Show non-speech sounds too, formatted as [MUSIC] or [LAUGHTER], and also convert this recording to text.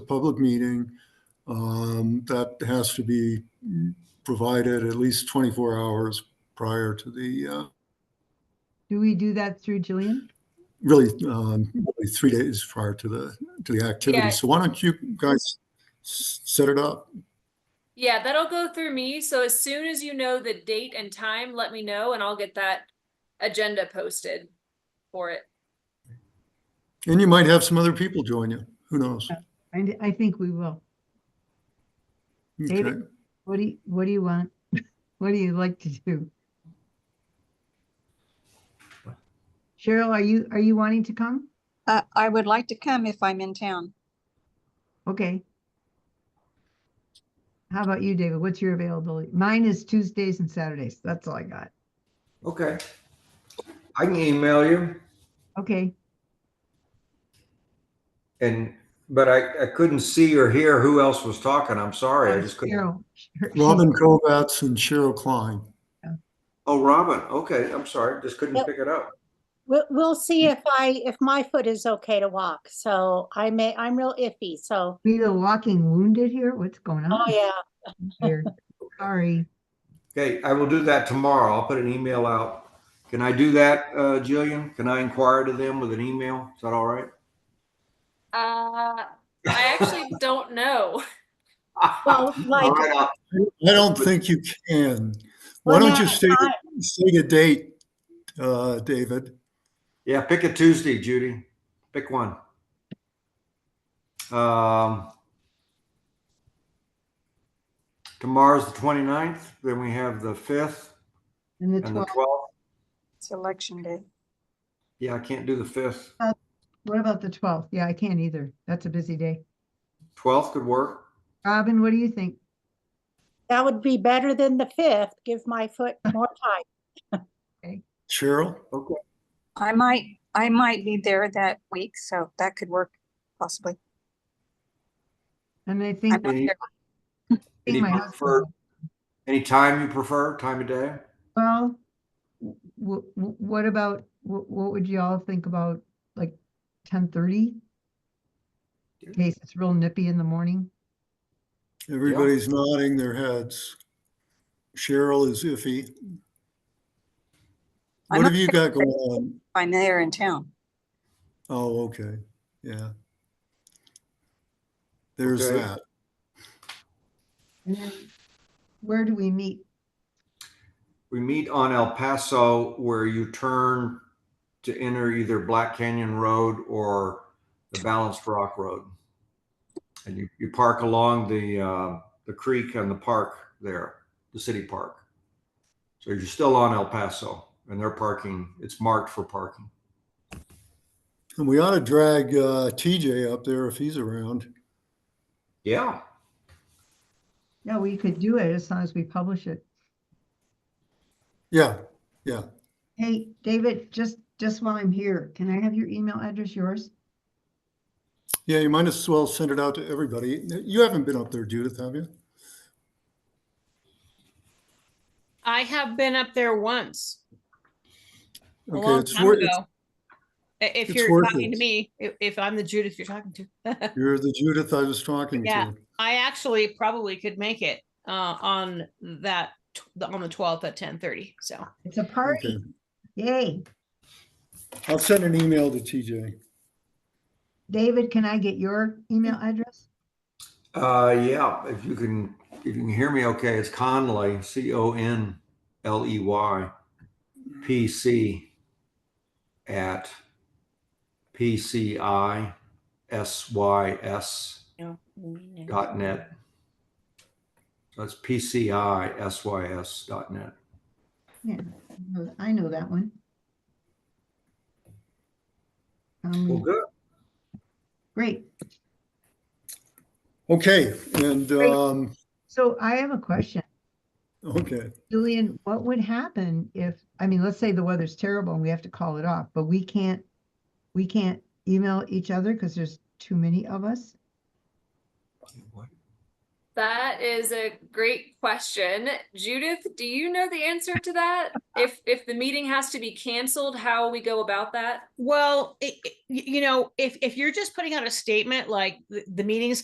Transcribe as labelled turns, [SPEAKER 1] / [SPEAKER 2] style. [SPEAKER 1] a public meeting, um, that has to be provided at least 24 hours prior to the, uh,
[SPEAKER 2] Do we do that through Jillian?
[SPEAKER 1] really, um, really three days prior to the, to the
[SPEAKER 3] Yeah.
[SPEAKER 1] activity. So why don't you guys s- set it up?
[SPEAKER 3] Yeah, that'll go through me. So as soon as you know the date and time, let me know and I'll get that agenda posted for it.
[SPEAKER 1] And you might have some other people join you. Who knows?
[SPEAKER 2] I, I think we will. David?
[SPEAKER 1] Okay.
[SPEAKER 2] What do you, what do you want? What do you like to do? Cheryl, are you, are you wanting to come?
[SPEAKER 4] Uh, I would like to come if I'm in town.
[SPEAKER 2] Okay. How about you, David? What's your availability? Mine is Tuesdays and Saturdays. That's all I got.
[SPEAKER 5] Okay. I can email you
[SPEAKER 2] Okay,
[SPEAKER 5] and, but I, I couldn't see or hear who else was talking. I'm sorry. I just couldn't.
[SPEAKER 2] Cheryl. Sher-
[SPEAKER 1] Robin Kovats and Cheryl Klein.
[SPEAKER 5] Oh, Robin. Okay. I'm sorry. Just couldn't
[SPEAKER 6] Yep.
[SPEAKER 5] pick it up.
[SPEAKER 6] We'll, we'll see
[SPEAKER 5] Mm.
[SPEAKER 6] if I, if my foot is okay to walk, so I may, I'm real iffy, so,
[SPEAKER 2] We the walking wounded here? What's going
[SPEAKER 6] oh,
[SPEAKER 2] on
[SPEAKER 6] yeah.
[SPEAKER 2] here? Sorry.
[SPEAKER 5] Okay. I will do that tomorrow. I'll put an email out. Can I do that, uh, Jillian? Can I inquire to them with an email? Is that all right?
[SPEAKER 3] Uh, I actually
[SPEAKER 7] [LAUGHS]
[SPEAKER 3] don't know.
[SPEAKER 5] [LAUGHS] All
[SPEAKER 6] Well, like,
[SPEAKER 5] right. I'll-
[SPEAKER 1] I don't think you can. Why
[SPEAKER 6] Well,
[SPEAKER 1] don't you
[SPEAKER 6] yeah,
[SPEAKER 1] state, state a date, uh, David?
[SPEAKER 5] Yeah, pick a Tuesday, Judy. Pick one. Um, tomorrow's the 29th. Then we have the 5th
[SPEAKER 2] And the
[SPEAKER 5] and the
[SPEAKER 2] 12th,
[SPEAKER 5] 12th.
[SPEAKER 4] It's election day.
[SPEAKER 5] Yeah, I can't do the fifth.
[SPEAKER 2] what about the 12th? Yeah, I can't either. That's a busy day.
[SPEAKER 5] Twelfth could work.
[SPEAKER 2] Robin, what do you think?
[SPEAKER 6] that would be better than the fifth, give my foot more time.
[SPEAKER 1] Cheryl?
[SPEAKER 5] Okay.
[SPEAKER 4] I might, I might be there that week, so that could work possibly.
[SPEAKER 2] And I
[SPEAKER 4] I'm
[SPEAKER 2] think.
[SPEAKER 4] not
[SPEAKER 5] Any-
[SPEAKER 4] there.
[SPEAKER 2] I think
[SPEAKER 5] Any
[SPEAKER 2] my husband-
[SPEAKER 5] preferred, any time you prefer, time of day?
[SPEAKER 2] Well, w- w- w- what about, wh- what would y'all think about like ten thirty? In case it's real nippy in the morning.
[SPEAKER 1] Everybody's nodding their heads. Cheryl is iffy. What
[SPEAKER 4] I'm not
[SPEAKER 1] have you
[SPEAKER 4] sure
[SPEAKER 1] got going on?
[SPEAKER 4] I'm there in town.
[SPEAKER 1] Oh, okay, yeah. There's
[SPEAKER 5] Okay.
[SPEAKER 1] that.
[SPEAKER 2] And then where do we meet?
[SPEAKER 5] We meet on El Paso where you turn to enter either Black Canyon Road or the Balanced Rock Road. And you, you park along the, uh, the creek and the park there, the city park. So you're still on El Paso and they're parking, it's marked for parking.
[SPEAKER 1] And we ought to drag uh, TJ up there if he's around.
[SPEAKER 5] Yeah.
[SPEAKER 2] No, we could do it as long as we publish it.
[SPEAKER 1] Yeah, yeah.
[SPEAKER 2] Hey, David, just, just while I'm here, can I have your email address, yours?
[SPEAKER 1] Yeah, you might as well send it out to everybody. You haven't been up there, Judith, have you?
[SPEAKER 7] I have been up there once, a
[SPEAKER 1] Okay,
[SPEAKER 7] long
[SPEAKER 1] it's
[SPEAKER 7] time
[SPEAKER 1] worth-
[SPEAKER 7] ago. I- If
[SPEAKER 1] it's
[SPEAKER 7] you're
[SPEAKER 1] worth
[SPEAKER 7] talking
[SPEAKER 1] it.
[SPEAKER 7] to me, if, if I'm the Judith you're talking to,
[SPEAKER 1] You're the Judith I was talking
[SPEAKER 7] Yeah.
[SPEAKER 1] to.
[SPEAKER 7] I actually probably could make it uh, on that tw- the- on the 12th at 10:30. So
[SPEAKER 2] It's a
[SPEAKER 1] Okay,
[SPEAKER 2] party. Yay.
[SPEAKER 1] I'll send an email to TJ.
[SPEAKER 2] David, can I get your email address?
[SPEAKER 5] Uh, yeah, if you can, if you can hear me okay, it's Conley, C O N L E Y, P C at P C I S Y S dot net. So That's P C I S Y S dot net.
[SPEAKER 2] Yeah, I know- I know that one. Um,
[SPEAKER 5] Well, good.
[SPEAKER 2] Great.
[SPEAKER 1] Okay, and,
[SPEAKER 2] Great.
[SPEAKER 1] um,
[SPEAKER 2] So I have a question.
[SPEAKER 1] okay,
[SPEAKER 2] Julian, what would happen if, I mean, let's say the weather's terrible and we have to call it off, but we can't, we can't email each other because there's too many of us?
[SPEAKER 3] That is a great question. Judith, do you know the answer to that? If, if the meeting has to be canceled, how we go about that?
[SPEAKER 7] well, it, it- y- you know, if if you're just putting out a statement like the, the meeting's